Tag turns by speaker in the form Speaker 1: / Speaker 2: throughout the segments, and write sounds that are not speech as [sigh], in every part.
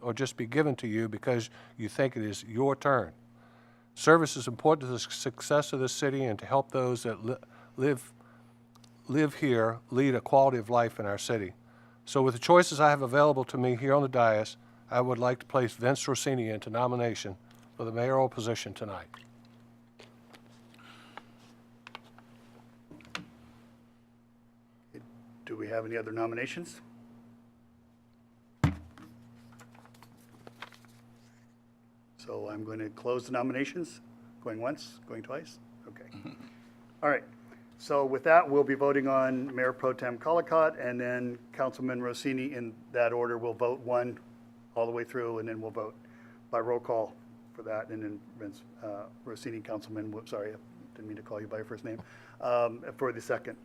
Speaker 1: or just be given to you because you think it is your turn. Service is important to the success of the city and to help those that li- live live here lead a quality of life in our city. So, with the choices I have available to me here on the dais, I would like to place Vince Rossini into nomination for the mayoral position tonight.
Speaker 2: Do we have any other nominations? So I'm going to close the nominations. Going once, going twice? Okay. All right. So with that, we'll be voting on Mayor Pro Tem Colacott and then Councilman Rossini in that order. We'll vote one all the way through and then we'll vote by roll call for that. And then Vince, uh, Rossini, Councilman, whoops, sorry, I didn't mean to call you by your first name, um, for the second.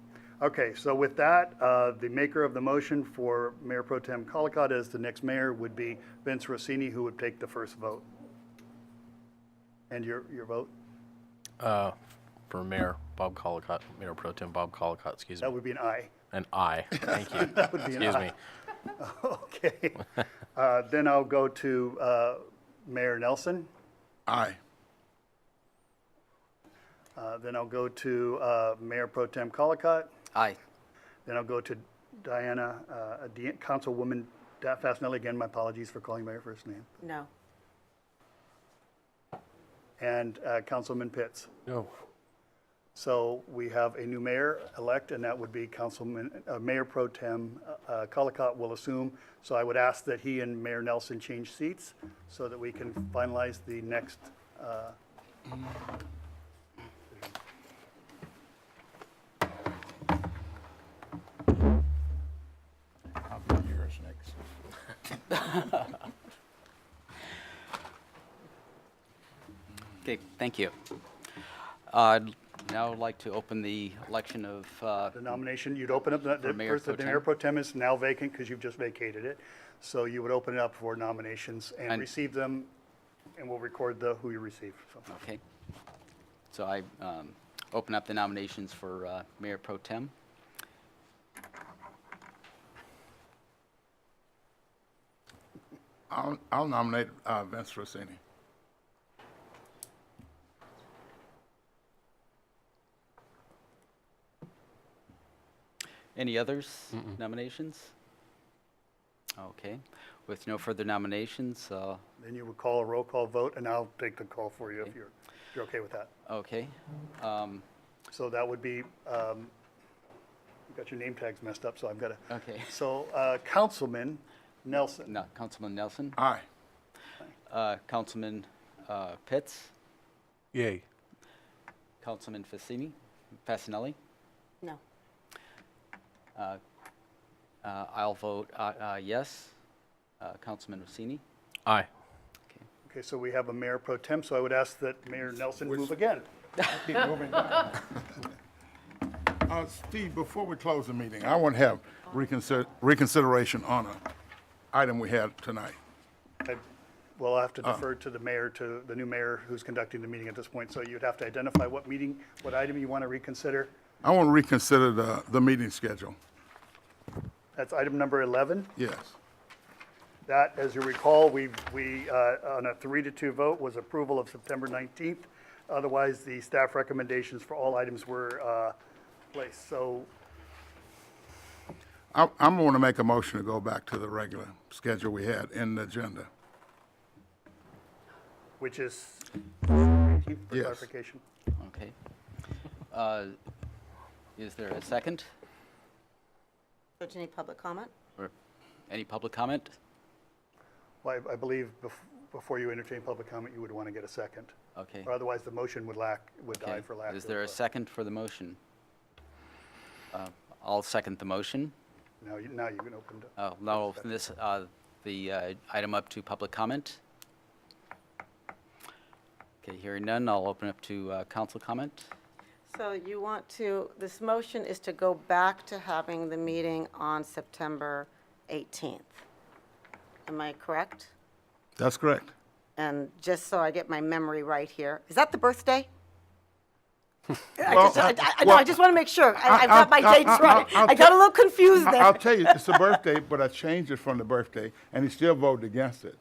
Speaker 2: Okay, so with that, uh, the maker of the motion for Mayor Pro Tem Colacott as the next mayor would be Vince Rossini, who would take the first vote. And your, your vote?
Speaker 3: Uh, for Mayor Bob Colacott, Mayor Pro Tem Bob Colacott, excuse me,
Speaker 2: That would be an aye.
Speaker 3: an aye. Thank
Speaker 2: [laughs]
Speaker 3: you.
Speaker 2: would be an
Speaker 3: Excuse
Speaker 2: aye.
Speaker 3: me.
Speaker 2: [laughs] Okay. Uh, Then I'll go to uh, Mayor Nelson.
Speaker 4: Aye.
Speaker 2: Uh, Then I'll go to uh, Mayor Pro Tem Colacott.
Speaker 5: Aye.
Speaker 2: Then I'll go to Diana, uh, Di- Councilwoman Da- Fasenelli. Again, my apologies for calling by her first name.
Speaker 6: No.
Speaker 2: And uh, Councilman Pitts.
Speaker 1: No.
Speaker 2: So we have a new mayor-elect, and that would be Councilman, uh, Mayor Pro Tem uh, Colacott will assume. So I would ask that he and Mayor Nelson change seats so that we can finalize the next. uh,
Speaker 4: Yours next.
Speaker 5: Okay, thank you. Uh, Now I'd like to open the election of, uh,
Speaker 2: The nomination, you'd open up, the- the
Speaker 5: Mayor
Speaker 2: first,
Speaker 5: Pro
Speaker 2: the Mayor
Speaker 5: Tem?
Speaker 2: Pro Tem is now vacant because you've just vacated it. So you would open it up for nominations and
Speaker 5: And-
Speaker 2: receive them, and we'll record the, who you receive. So,
Speaker 5: okay. So I um, open up the nominations for uh, Mayor Pro Tem.
Speaker 4: I'll, I'll nominate uh, Vince Rossini.
Speaker 5: Any others nominations? Okay. With no further nominations, uh,
Speaker 2: Then you would call a roll call vote, and I'll take the call for you if you're, if you're okay with that.
Speaker 5: okay. Um,
Speaker 2: So that would be, um, you got your name tags messed up, so I've got to.
Speaker 5: Okay.
Speaker 2: [laughs] So uh, Councilman Nelson,
Speaker 5: No, Councilman Nelson,
Speaker 4: Aye.
Speaker 5: uh, Councilman uh, Pitts,
Speaker 1: Yay.
Speaker 5: Councilman Fasini, Fasenelli.
Speaker 6: No.
Speaker 5: Uh, I'll vote uh, uh, yes. Uh, Councilman Rossini.
Speaker 3: Aye.
Speaker 2: okay, so we have a mayor pro tem, so I would ask that Mayor Nelson move again.
Speaker 4: Keep moving. Uh, Steve, before we close the meeting, I want to have reconsider, reconsideration on a item we had tonight.
Speaker 2: I- Well, I have to defer to the mayor, to the new mayor who's conducting the meeting at this point, so you'd have to identify what meeting, what item you want to reconsider.
Speaker 4: I want to reconsider the, the meeting schedule.
Speaker 2: That's item number 11.
Speaker 4: Yes.
Speaker 2: That, as you recall, we, we, uh, on a three to two vote, was approval of September 19th. Otherwise, the staff recommendations for all items were uh, placed. So
Speaker 4: I, I'm going to make a motion to go back to the regular schedule we had in the agenda.
Speaker 2: which is, 18th for
Speaker 4: Yes.
Speaker 2: clarification.
Speaker 5: Okay. Uh, Is there a second
Speaker 6: So do you need public comment?
Speaker 5: or any public comment?
Speaker 2: Well, I I believe bef- before you entertain public comment, you would want to get a second.
Speaker 5: Okay.
Speaker 2: Or otherwise, the motion would lack, would die
Speaker 5: Okay.
Speaker 2: for lack of.
Speaker 5: Is there
Speaker 2: uh,
Speaker 5: a second for the motion? Uh, I'll second the motion.
Speaker 2: Now, you- now you can open it. up.
Speaker 5: Uh, Now, I'll open this, uh, the uh, item up to public comment. Okay, hearing none, I'll open up to uh, council comment.
Speaker 6: So you want to, this motion is to go back to having the meeting on September 18th. Am I correct?
Speaker 4: That's correct.
Speaker 6: And just so I get my memory right here, is that the birthday? I
Speaker 4: [laughs] Well,
Speaker 6: just- I- I- I- No,
Speaker 4: well-
Speaker 6: I just want to make sure. I- I've
Speaker 4: I'll-
Speaker 6: got my
Speaker 4: I'll-
Speaker 6: dates
Speaker 4: I'll-
Speaker 6: right.
Speaker 4: I'll-
Speaker 6: I got a little confused
Speaker 4: I-
Speaker 6: there.
Speaker 4: I'll tell you, it's a birthday, but I changed it from the birthday, and he still voted against it.